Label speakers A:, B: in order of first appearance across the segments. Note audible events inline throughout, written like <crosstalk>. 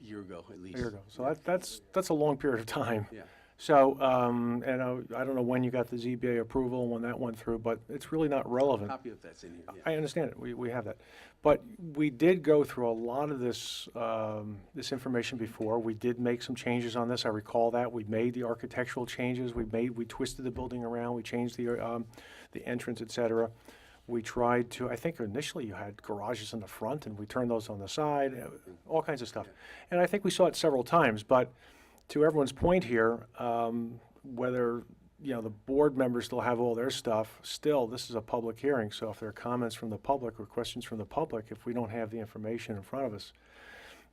A: year ago at least.
B: A year ago. So that, that's, that's a long period of time.
A: Yeah.
B: So, um, and I, I don't know when you got the ZBA approval and when that went through, but it's really not relevant.
A: Copy of that's in here, yeah.
B: I understand it, we, we have that. But we did go through a lot of this, um, this information before. We did make some changes on this, I recall that. We made the architectural changes, we made, we twisted the building around, we changed the, um, the entrance, et cetera. We tried to, I think initially you had garages in the front and we turned those on the side, uh, all kinds of stuff. And I think we saw it several times, but to everyone's point here, um, whether, you know, the board members still have all their stuff, still, this is a public hearing, so if there are comments from the public or questions from the public, if we don't have the information in front of us,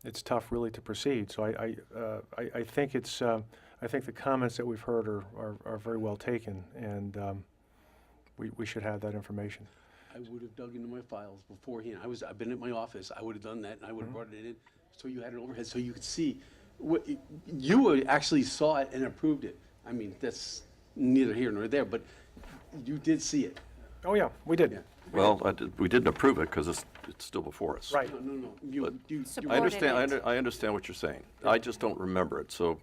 B: it's tough really to proceed. So I, I, uh, I, I think it's, uh, I think the comments that we've heard are, are, are very well taken, and, um, we, we should have that information.
A: I would have dug into my files beforehand. I was, I've been at my office, I would have done that, and I would have
B: Mm-hmm.
A: brought it in, so you had an overhead, so you could see. What, you were- actually saw it and approved it. I mean, that's neither here nor there, but you did see it.
B: Oh, yeah, we did.
A: Yeah.
C: Well, I did- we didn't approve it because it's, it's still before us.
B: Right.
A: No, no, no, you, you. you-
C: I
D: Supported
C: understand, I
D: it.
C: under- I understand what you're saying. I just don't remember it, so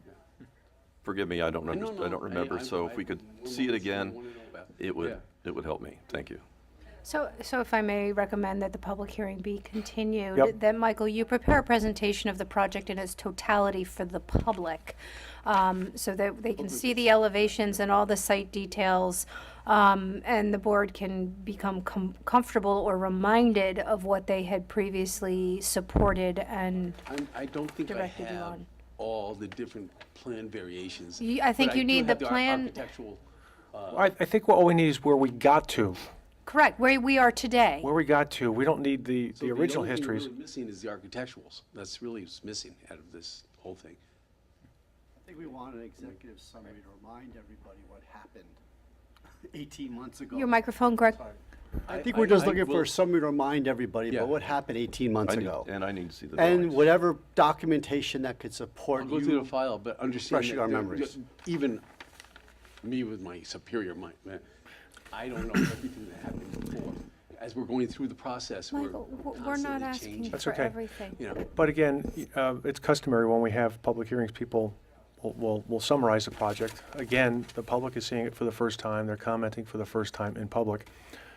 C: forgive me, I don't,
A: no,
C: underst- I
A: no,
C: don't remember.
A: I-
C: So if
A: I-
C: we could
A: I-
C: see it
A: I
C: again,
A: wanna know about-
C: it would,
A: Yeah.
C: it would help me. Thank you.
D: So, so if I may recommend that the public hearing be continued,
B: Yep.
D: that, Michael, you prepare a presentation of the project in its totality for the public, um, so that they can see the elevations and all the site details, um, and the board can become com- comfortable or reminded of what they had previously supported and
A: I'm, I don't think I
D: Directed you
A: have
D: on.
A: all the different plan variations.
D: You- I
A: but
D: think you
A: do
D: need the
A: have ar-
D: plan-
A: Architectural,
B: I, I think what we need is where we got to,
D: Correct, where we are today.
B: where we got to. We don't need the,
A: So
B: the original
A: only thing
B: histories.
A: really Missing is the architecturals. That's really what's missing out of this whole thing.
E: I think we want an executive summary to remind everybody what happened <laughs> 18 months ago.
D: Your microphone, Greg?
E: I think we're just looking for a summary to remind everybody
A: Yeah.
E: about what happened 18 months
C: I need-
E: ago.
C: And I need to see the
E: And
C: drawings.
E: whatever documentation that could support
A: I'll go through
E: you.
A: the file, but understand.
E: refreshing
A: that
E: our
A: there-
E: memories.
A: Even me with my superior mind, man, I don't know everything that happened before. As we're going through the process, we're
D: Michael, w- we're not
A: constantly
D: asking
A: changing.
B: That's
D: for
B: okay.
D: everything.
A: You know,
B: But again, y- uh, it's customary when we have public hearings, people will- will, will summarize the project. Again, the public is seeing it for the first time, they're commenting for the first time in public.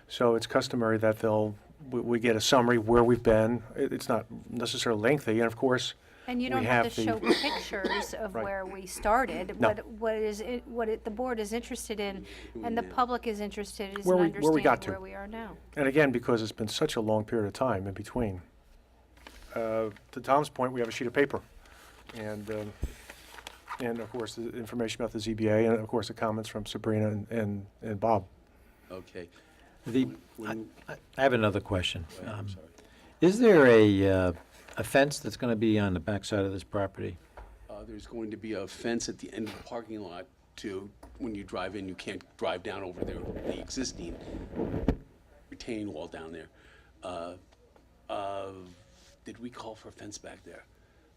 B: So it's customary that they'll, we, we get a summary where we've been. It, it's not necessarily lengthy, and of course,
D: And you
B: we
D: don't have to
B: the- <coughs>
D: show pictures of
B: Right.
D: where we started.
B: No.
D: What What is, it- what it- the board is interested in, and the public is interested is in
B: Where we- where we
D: understanding
B: got to.
D: where we are now.
B: And again, because it's been such a long period of time in between. Uh, To Tom's point, we have a sheet of paper. And, um, and of course, the information about the ZBA, and of course, the comments from Sabrina and- and, and Bob.
A: okay.
F: The, I
A: When-
F: I- I have another question. Um,
A: I'm sorry.
F: Is there a, uh, a fence that's going to be on the backside of this property?
A: Uh, There's going to be a fence at the end of the parking lot to, when you drive in, you can't drive down over there, the existing retaining wall down there. Uh, uh, Did we call for a fence back there?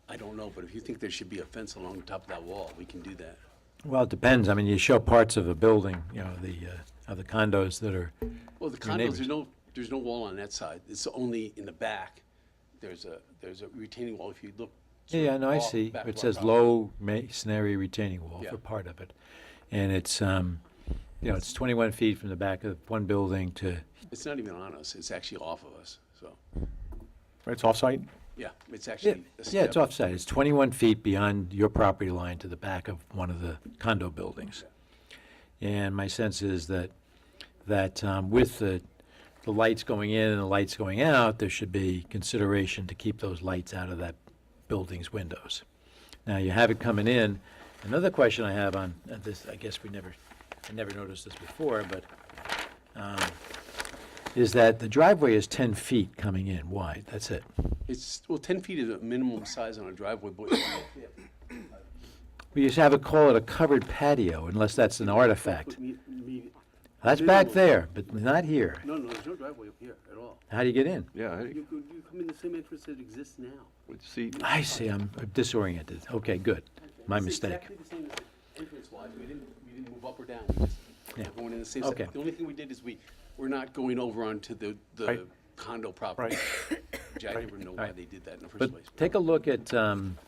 A: I don't know, but if you think there should be a fence along the top of that wall, we can do that.
F: Well, it depends. I mean, you show parts of a building, you know, the, uh, of the condos that are,
A: Well, the
F: Your
A: condos, there's
F: neighbors.
A: no, there's no wall on that side. It's only in the back. There's a, there's a retaining wall if you look. sort
F: yeah,
A: of
F: no, I
A: off
F: see.
A: back of
F: It
A: our
F: says
A: property.
F: low masonry retaining wall
A: Yeah.
F: for part of it. And it's, um, you know, it's 21 feet from the back of one building to,
A: It's not even on us. It's actually off of us, so,
B: It's off-site?
A: yeah, it's actually. a
F: yeah, it's
A: step.
F: offsite. It's 21 feet beyond your property line to the back of one of the condo buildings. And my sense is that, that um, with the, the lights going in and the lights going out, there should be consideration to keep those lights out of that building's windows. Now, you have it coming in. Another question I have on uh, this, I guess we never, I never noticed this before, but, um, is that the driveway is 10 feet coming in wide. That's it.
A: It's, well, 10 feet is a minimum size on a driveway, but
F: We used to have it call it a covered patio, unless that's an artifact.
A: <coughs> But me- me-
F: That's back there, but not here.
A: No, no, there's no driveway up here at all.
F: How do you get in?
C: Yeah, I-
A: You, could- you come in the same entrance that exists now.
C: would see,
F: I see, I'm disoriented. Okay, good. My
A: It's
F: mistake.
A: exactly the same entrance wise. We didn't, we didn't move up or down. We just
F: Yeah.
A: we're going in the same. side.
F: Okay.
A: The only thing we did is we, we're not going over onto the, the
B: Right.
A: condo property. Which I never know why
F: Right.
A: they did that in the first
F: But
A: place.
F: take a look at, um,